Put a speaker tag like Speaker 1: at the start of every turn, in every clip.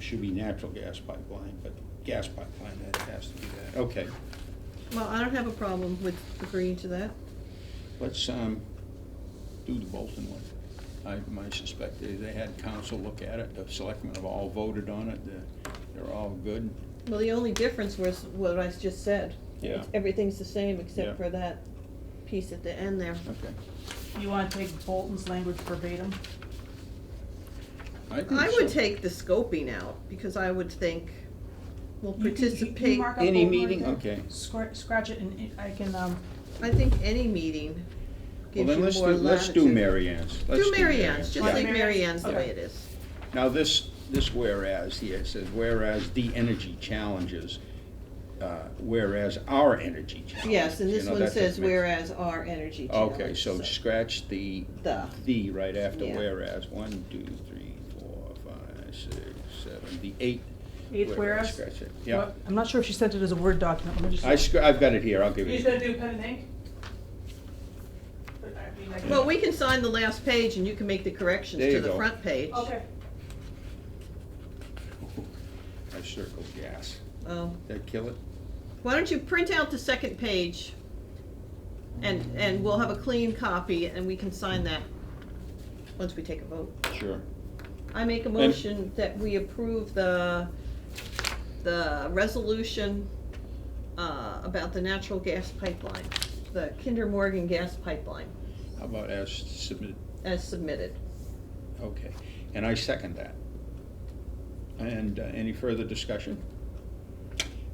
Speaker 1: should be natural gas pipeline, but gas pipeline, that has to be that, okay.
Speaker 2: Well, I don't have a problem with agreeing to that.
Speaker 1: Let's, um, do the Bolton one. I, I suspect they, they had council look at it, the selectmen have all voted on it, they're, they're all good.
Speaker 2: Well, the only difference was what I just said.
Speaker 1: Yeah.
Speaker 2: It's- Everything's the same
Speaker 1: Yeah.
Speaker 2: except for that piece at the end there.
Speaker 1: Okay.
Speaker 3: You wanna take Bolton's language verbatim?
Speaker 1: think
Speaker 2: I would
Speaker 1: so.
Speaker 2: take the scoping out, because I would think we'll
Speaker 3: You can- you- you
Speaker 2: participate,
Speaker 3: mark up
Speaker 1: Any
Speaker 3: Bolton right
Speaker 1: meeting?
Speaker 3: there.
Speaker 1: Okay.
Speaker 3: Scratch, scratch it and it- I can, um,
Speaker 2: I think any meeting
Speaker 1: Well,
Speaker 2: gives you
Speaker 1: then
Speaker 2: more
Speaker 1: let's
Speaker 2: latitude.
Speaker 1: do, let's do Mary Ann's. Let's
Speaker 2: Do Mary Ann's, just
Speaker 3: Yeah.
Speaker 2: leave Mary Ann's the
Speaker 3: Okay.
Speaker 2: way it is.
Speaker 1: Now, this, this whereas here it says, whereas the energy challenges, uh, whereas our energy challenges.
Speaker 2: Yes, and
Speaker 1: you
Speaker 2: this
Speaker 1: know,
Speaker 2: one
Speaker 1: that's a
Speaker 2: says
Speaker 1: mix.
Speaker 2: whereas our energy
Speaker 1: Okay,
Speaker 2: challenge,"
Speaker 1: so scratch the,
Speaker 2: The.
Speaker 1: the right after
Speaker 2: Yeah.
Speaker 1: whereas, one, two, three, four, five, six, seven, the eight.
Speaker 3: eighth whereas.
Speaker 1: Scratch it, yeah.
Speaker 3: What- I'm not sure if she sent it as a Word document, let me just.
Speaker 1: I scr- I've got it here, I'll give
Speaker 3: You
Speaker 1: it
Speaker 3: just
Speaker 1: to you.
Speaker 3: gonna do pen and ink? But I mean, I can-
Speaker 2: Well, we can sign the last page and you can make the corrections
Speaker 1: There
Speaker 2: to
Speaker 1: you
Speaker 2: the
Speaker 1: go.
Speaker 2: front page.
Speaker 3: Okay.
Speaker 1: I circled gas.
Speaker 2: Oh.
Speaker 1: That kill it?
Speaker 2: Why don't you print out the second page? And, and we'll have a clean copy and we can sign that once we take a vote.
Speaker 1: Sure.
Speaker 2: I make a motion that we approve the, the resolution, uh, about the natural gas pipeline, the Kinder Morgan gas pipeline
Speaker 1: How about as submitted?
Speaker 2: as submitted.
Speaker 1: Okay, and I second that. And uh, any further discussion?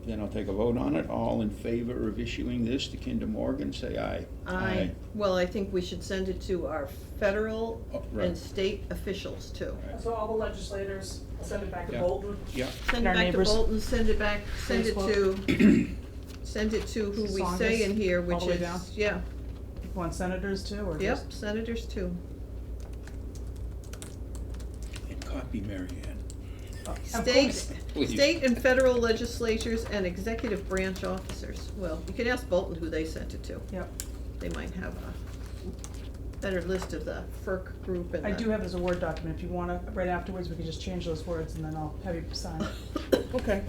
Speaker 1: Then I'll take a vote on it. All in favor of issuing this to Kinder Morgan, say aye.
Speaker 2: I, well, I think we should send it to our federal
Speaker 1: Oh, right.
Speaker 2: and state officials too.
Speaker 1: Right.
Speaker 3: So all the legislators, I'll send it back to
Speaker 1: Yeah.
Speaker 3: Bolton.
Speaker 1: Yeah,
Speaker 2: Send
Speaker 3: And
Speaker 2: it
Speaker 3: our
Speaker 2: back to
Speaker 3: neighbors.
Speaker 2: Bolton, send it back, send it
Speaker 3: Facebook.
Speaker 2: to, send it to who we say in
Speaker 3: Songas,
Speaker 2: here,
Speaker 3: all
Speaker 2: which
Speaker 3: the way down?
Speaker 2: is, yeah,
Speaker 3: You Want senators too, or
Speaker 2: yep,
Speaker 3: just?
Speaker 2: senators too.
Speaker 1: and copy Mary Ann.
Speaker 3: Of
Speaker 2: State,
Speaker 3: course.
Speaker 1: Please.
Speaker 2: state and federal legislatures and executive branch officers. Well, you can ask Bolton who they sent it to.
Speaker 3: Yep,
Speaker 2: They might have a better list of the FERC group and
Speaker 3: I
Speaker 2: the-
Speaker 3: do have it as a Word document, if you wanna, right afterwards, we can just change those words and then I'll have you sign it.
Speaker 1: Okay.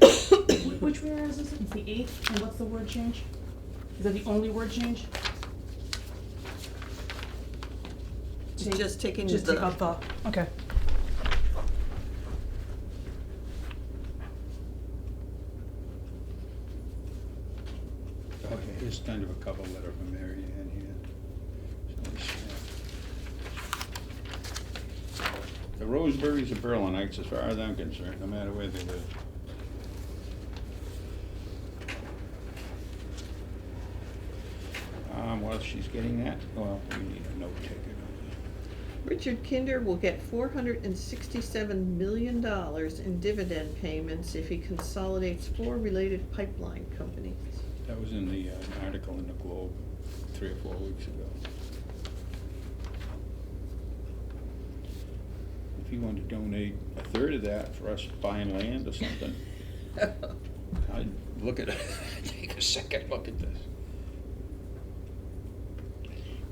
Speaker 3: Wh- Which whereas is it? It's the eighth, and what's the word change? Is that the only word change?
Speaker 2: It's
Speaker 3: Take-
Speaker 2: just taking
Speaker 3: Just
Speaker 2: the-
Speaker 3: take out the, okay.
Speaker 1: Okay, here's kind of a cover letter for Mary Ann here. So we should- The Roseberries are Berlinites, as far as I'm concerned, no matter where they live. Um, while she's getting that, well, we need a note taker. don't
Speaker 2: Richard Kinder will get four hundred and sixty-seven million dollars in dividend payments if he consolidates four related pipeline companies.
Speaker 1: we? That was in the uh, article in the Globe three or four weeks ago. If you want to donate a third of that for us buying land or something. I look at, take a second look at this.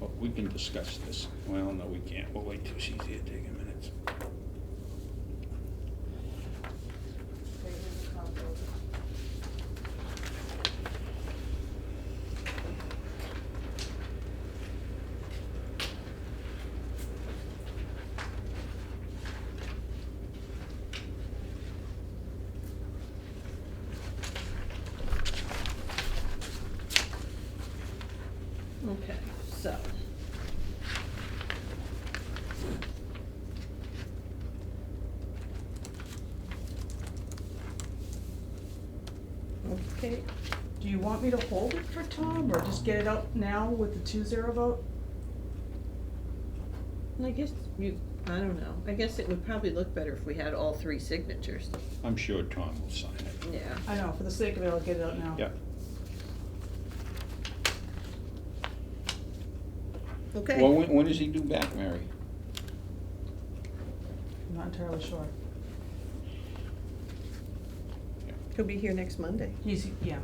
Speaker 1: Well, we can discuss this. Well, no, we can't. We'll wait till she's here, take a minute.
Speaker 2: Okay, so. Okay,
Speaker 3: Do you want me to hold it for Tom, or just get it out now with the two zero vote?
Speaker 2: and I guess you, I don't know, I guess it would probably look better if we had all three signatures.
Speaker 1: I'm sure Tom will sign it.
Speaker 2: Yeah.
Speaker 3: I know, for the sake of it, I'll get it out now.
Speaker 1: Yeah,
Speaker 2: Okay.
Speaker 1: well, when, when does he do back, Mary?
Speaker 3: I'm not entirely sure.
Speaker 2: He'll be here next Monday.
Speaker 3: He's, yeah.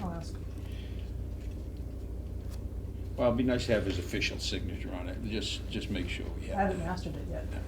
Speaker 3: I'll ask.
Speaker 1: Well, it'd be nice to have his official signature on it, just, just make sure we have.
Speaker 3: I haven't
Speaker 1: that.
Speaker 3: mastered it yet.